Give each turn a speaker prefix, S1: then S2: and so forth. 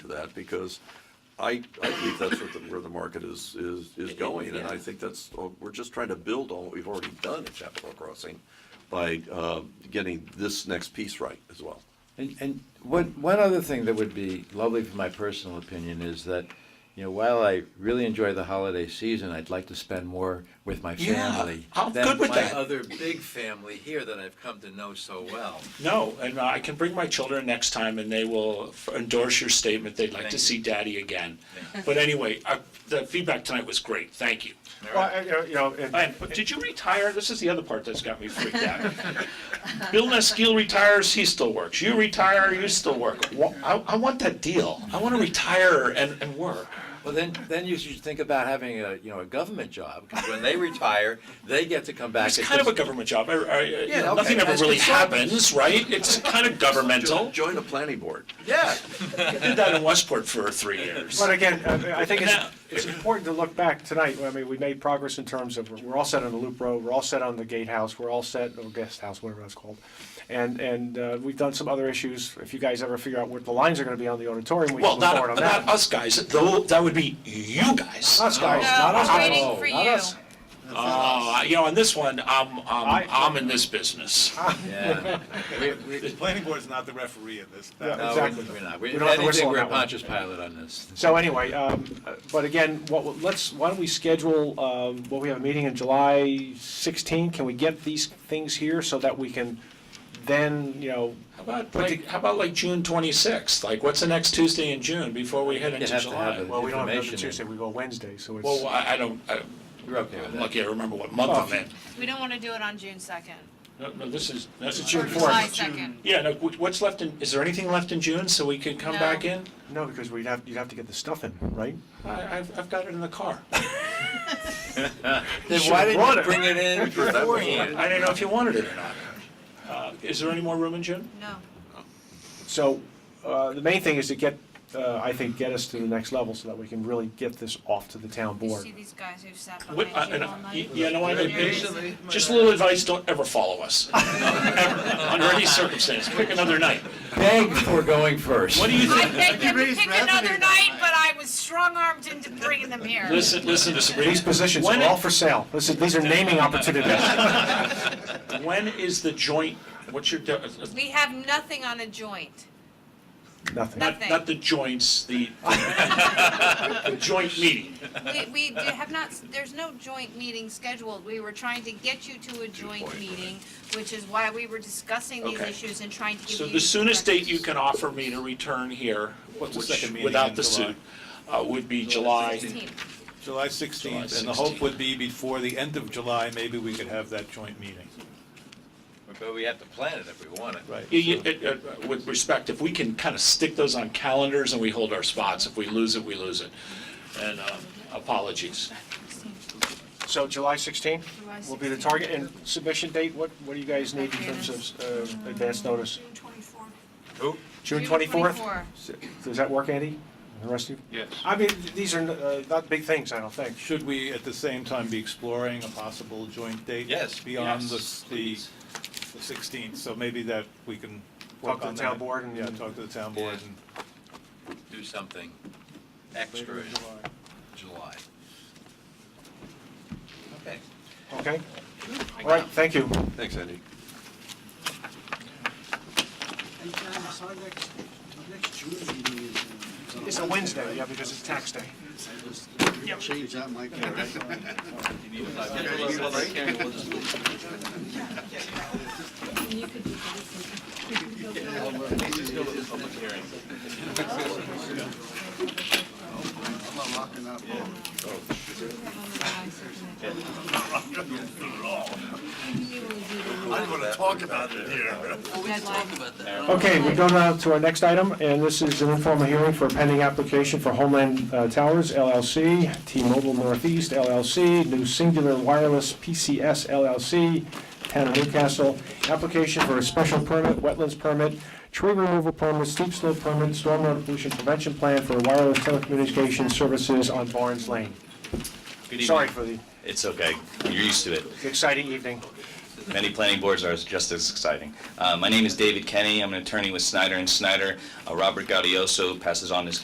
S1: that because I, I believe that's what the, where the market is, is, is going. And I think that's, oh, we're just trying to build on what we've already done at Chapel Hill Crossing by, uh, getting this next piece right as well.
S2: And, and one, one other thing that would be lovely for my personal opinion is that, you know, while I really enjoy the holiday season, I'd like to spend more with my
S1: Yeah,
S2: family.
S1: I'm
S2: than
S1: good with
S2: my
S1: that.
S2: other big family here that I've come to know so well.
S3: No, and I can bring my children next time and they will f- endorse your statement, they'd like
S2: Thank
S3: to
S2: you.
S3: see daddy again. But anyway, uh, the feedback tonight was great, thank you.
S4: Well, I- I- you know, and-
S3: And but did you retire? This is the other part that's got me freaked out. Bill Neskeel retires, he still works. You retire, you still work. Wha- I, I want that deal. I want to retire and, and work.
S2: Well, then, then you should think about having a, you know, a government job, because when they retire, they get to come back.
S3: It's
S2: and
S3: kind of a
S2: just-
S3: government job. I, I, you
S2: Yeah,
S3: know,
S2: okay,
S3: nothing ever
S2: as
S3: really
S2: consultants.
S3: happens, right? It's kind of governmental.
S1: Join a planning board.
S2: Yeah,
S3: I did that in Westport for three years.
S4: but again, I- I think it's,
S3: Now-
S4: it's important to look back tonight. I mean, we made progress in terms of, we're all set on the Loop Road, we're all set on the Gatehouse, we're all set, or Guest House, whatever that's called. And, and uh, we've done some other issues. If you guys ever figure out what the lines are gonna be on the auditorium, we
S3: Well,
S4: can move
S3: not,
S4: forward on
S3: not
S4: that.
S3: us guys, though, that would be you guys.
S4: Us guys,
S5: No,
S4: not
S5: we're
S4: us
S5: waiting
S4: guys.
S5: for
S4: Not
S5: you.
S4: us.
S3: Uh, you know, on this one, I'm, I'm,
S4: I-
S3: I'm in this business.
S2: yeah. We- we-
S6: The planning board is not the referee in this. Uh,
S4: Yeah.
S2: No,
S4: Exactly.
S2: we're not.
S4: We
S2: We,
S4: don't have to
S2: anything,
S4: whistle on
S2: we're a
S4: that one.
S2: Pontius Pilate on this.
S4: So anyway, um, uh, but again, what, we'll- let's, why don't we schedule, um, well, we have a meeting in July 16. Can we get these things here so that we can then, you know,
S3: How about, like, how about like June twenty-sixth? Like, what's the next Tuesday in June before we head
S2: You
S3: into
S2: have to have
S3: July?
S2: it.
S4: well, we don't have another
S2: Information in.
S4: Tuesday, we go Wednesday, so it's.
S3: Well, I, I don't, I-
S2: You're okay with
S3: I'm
S2: that?
S3: lucky I remember what month I'm in.
S5: We don't want to do it on June second.
S3: No, Oh. no, this is. This is
S4: June
S5: Or
S4: fourth.
S5: Uh, July second.
S3: Yeah, no, wh- what's left in, is there anything left in June so we could come
S5: No.
S3: back in?
S4: No, because we'd have, you'd have to get the stuff in, right?
S3: I, I've, I've got it in the car.
S2: Then
S4: should've
S2: why didn't
S4: brought
S2: you
S4: it.
S2: bring it in beforehand?
S3: I didn't know if you wanted it or not. Uh, is there any more room in June?
S5: No.
S4: So, uh, the main thing is to get, uh, I think, get us to the next level so that we can really get this off to the town
S5: You
S4: board.
S5: see these guys who've sat
S3: What- uh,
S5: behind
S3: and,
S5: you
S3: uh,
S5: all
S3: y-
S5: night?
S3: Yeah, no, I,
S5: They're
S3: I-
S5: busy.
S3: just a little advice, don't ever follow us, Ever. under any circumstance, pick another night.
S2: Beg for going first.
S3: What do you
S5: I
S3: think?
S5: begged them to
S6: raised
S5: pick
S6: revenue
S5: another
S6: that
S5: night,
S6: night.
S5: but I was strong-armed into bringing them here.
S3: Listen, listen to Sabrina.
S4: These positions
S3: When
S4: are
S3: it-
S4: all for sale. This is, these are naming opportunities.
S3: When is the joint, what's your, de- uh, uh,
S5: We have nothing on a joint.
S4: Nothing.
S3: not, not the joints, the, the joint meeting?
S5: We, we do- have not, there's no joint meeting scheduled. We were trying to get you to a joint meeting, which is why we were discussing these
S3: Okay.
S5: issues and trying to give you.
S3: So the soonest date you
S5: directions.
S3: can offer me to return here,
S6: What's the
S3: which,
S6: second meeting
S3: without
S6: in
S3: the
S6: July?
S3: suit, uh, would be July.
S5: 16th.
S6: July
S3: July
S6: 16th, and the hope
S3: 16th.
S6: would be before the end of July, maybe we could have that joint meeting.
S2: But we have to plan it if we want it.
S6: Right.
S3: You- you- it- it- With respect, if we can kind of stick those on calendars and we hold our spots, if we lose it, we lose it. And um, apologies.
S4: So July 16
S5: July
S4: will be the
S5: 16.
S4: target, and submission date, what, what do you guys need in terms of uh, advance notice?
S2: Who?
S4: June
S5: June
S4: 24th?
S5: 24.
S4: Does that work, Andy? And The rest of you?
S6: Yes.
S4: I mean, th- these are uh, not big things, I don't think.
S6: Should we, at the same time, be exploring a possible joint date?
S2: Yes.
S6: Beyond the,
S3: Yes,
S6: the the 16th, so maybe that we can
S4: Talk
S6: work
S4: to
S6: on
S4: the town
S6: that.
S4: board and-
S6: Yeah, talk to the town board
S2: Yeah.
S6: and.
S2: Do something extra in July. Okay.
S4: Okay? All right, thank you.
S1: Thanks, Andy.
S7: Hey, John, so our next, our next June meeting is. uh, on
S4: It's a Wednesday, yeah, because it's tax day.
S7: I just- Change that, Mike. all right? I'm not locking up.
S5: I don't want to talk about it here.
S4: Okay, we go now to our next item, and this is an informal hearing for a pending application for Homeland uh, Towers LLC, T-Mobile Northeast LLC, New Singular Wireless PCS LLC, Town of Newcastle, application for a special permit, wetlands permit, tree removal permit, steep slope permit, stormwater pollution prevention plan for wireless telecommunications services on Barnes Lane.
S8: Good
S4: Sorry
S8: evening.
S4: for the
S8: It's okay. You're used to it.
S4: exciting evening.
S8: Many planning boards are just as exciting. Uh, My name is David Kenny. I'm an attorney with Snyder and Snyder. Uh, Robert Gaudioso passes on his